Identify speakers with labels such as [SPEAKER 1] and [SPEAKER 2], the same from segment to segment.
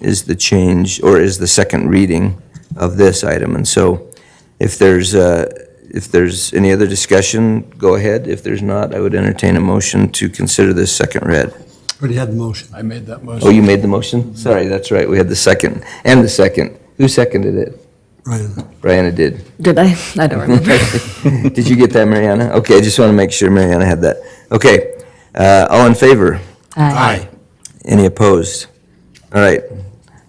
[SPEAKER 1] is the change, or is the second reading of this item. And so if there's, uh, if there's any other discussion, go ahead. If there's not, I would entertain a motion to consider this second read.
[SPEAKER 2] Already had the motion.
[SPEAKER 3] I made that
[SPEAKER 1] Oh,
[SPEAKER 3] motion.
[SPEAKER 1] you made the motion? Sorry, that's right, we had the second, and the second. Who seconded it?
[SPEAKER 2] Ryan,
[SPEAKER 1] Brianna did.
[SPEAKER 4] Did I? I don't remember.
[SPEAKER 1] Did you get that, Mariana? Okay, I just want to make sure Mariana had that. Okay, uh, all in favor?
[SPEAKER 4] Uh,
[SPEAKER 3] Aye.
[SPEAKER 1] Any opposed? All right,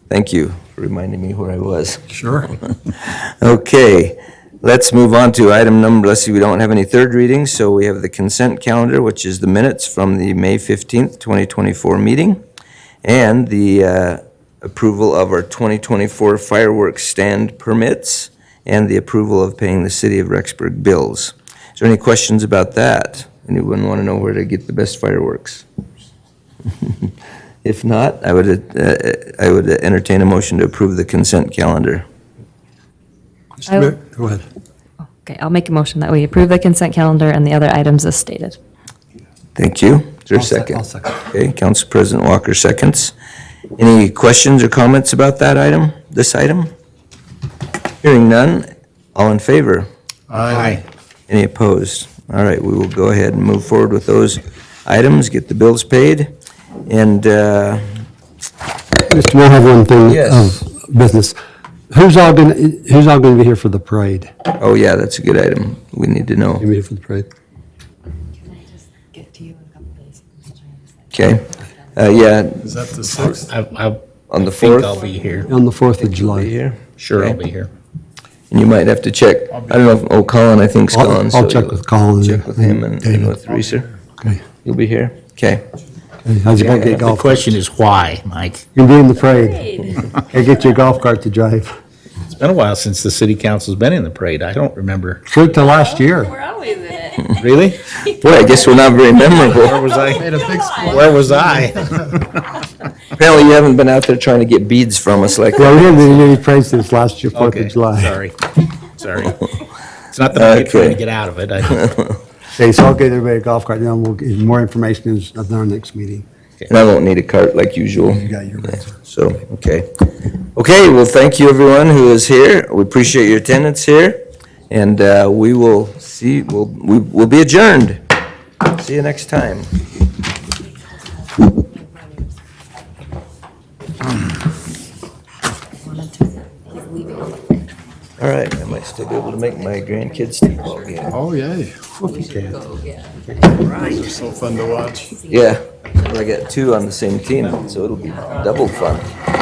[SPEAKER 1] thank you for reminding me where I was.
[SPEAKER 2] sure.
[SPEAKER 1] Oh. Okay, let's move on to item number, let's see, we don't have any third readings, so we have the consent calendar, which is the minutes from the May 15th, 2024 meeting, and the uh, approval of our 2024 fireworks stand permits, and the approval of paying the city of Rexburg bills. Is there any questions about that? Anyone want to know where to get the best fireworks? If not, I would, uh, I would entertain a motion to approve the consent calendar.
[SPEAKER 4] I-
[SPEAKER 2] Mr. Mayor, Go ahead.
[SPEAKER 4] Okay, I'll make a motion that we approve the consent calendar and the other items as stated.
[SPEAKER 1] Thank you. Is there a
[SPEAKER 2] I'll sec-
[SPEAKER 1] 2nd
[SPEAKER 2] I'll second.
[SPEAKER 1] Okay, Council President Walker seconds. Any questions or comments about that item, this item? Hearing none, all in favor?
[SPEAKER 3] Aye.
[SPEAKER 1] Any opposed? All right, we will go ahead and move forward with those items, get the bills paid, and, uh,
[SPEAKER 2] Mr. Mayor, I have one thing Um,
[SPEAKER 1] Yes.
[SPEAKER 2] of business. Who's all gonna, who's all gonna be here for the parade?
[SPEAKER 1] oh yeah, that's a good item. We need to know.
[SPEAKER 2] Gonna be here for the parade?
[SPEAKER 1] Okay? Uh, Yeah,
[SPEAKER 3] Is that the sixth?
[SPEAKER 5] I, I
[SPEAKER 1] on the
[SPEAKER 5] think
[SPEAKER 1] 4th?
[SPEAKER 5] I'll be here.
[SPEAKER 2] On the 4th
[SPEAKER 1] Are you
[SPEAKER 2] of July.
[SPEAKER 1] here?
[SPEAKER 5] Sure, I'll
[SPEAKER 1] Okay.
[SPEAKER 5] be here.
[SPEAKER 1] And you might have to check. I don't know if, oh, Colin, I think's
[SPEAKER 2] I'll-
[SPEAKER 1] gone.
[SPEAKER 2] I'll
[SPEAKER 1] so
[SPEAKER 2] check
[SPEAKER 1] you'll
[SPEAKER 2] with Colin
[SPEAKER 1] Check with him and and
[SPEAKER 2] David.
[SPEAKER 1] with Reeser.
[SPEAKER 2] Okay.
[SPEAKER 1] You'll be here? Okay.
[SPEAKER 2] Okay, How's your
[SPEAKER 1] Yeah,
[SPEAKER 2] pancake
[SPEAKER 5] The
[SPEAKER 2] golf?
[SPEAKER 5] question is why, Mike?
[SPEAKER 2] You'll be in the parade. Okay, get your golf cart to drive.
[SPEAKER 5] It's been a while since the city council's been in the parade. I don't remember.
[SPEAKER 2] True to last year.
[SPEAKER 6] We're always in it. Oh,
[SPEAKER 5] Really?
[SPEAKER 1] Boy, I guess we're not very memorable.
[SPEAKER 5] Where was I?
[SPEAKER 3] Made a big splash.
[SPEAKER 5] Where was I?
[SPEAKER 1] Apparently, you haven't been out there trying to get beads from us like
[SPEAKER 2] Well, we haven't been in any parade since last year, 4th
[SPEAKER 5] Okay,
[SPEAKER 2] of July.
[SPEAKER 5] sorry, sorry. It's not that I'm trying
[SPEAKER 1] Okay.
[SPEAKER 5] to get out of it. I-
[SPEAKER 2] Okay, so I'll get everybody a golf cart, then we'll get more information is- at our next meeting.
[SPEAKER 1] And I won't need a cart like usual.
[SPEAKER 2] You got your answer.
[SPEAKER 1] So, okay. Okay, well, thank you, everyone who is here. We appreciate your attendance here. And uh, we will see, we'll, we- we'll be adjourned. See you next time. All right, I might still be able to make my grandkids' t-ball game.
[SPEAKER 3] Oh, yay. Those are so fun to watch.
[SPEAKER 1] Yeah, I got two on the same team, so it'll be double fun.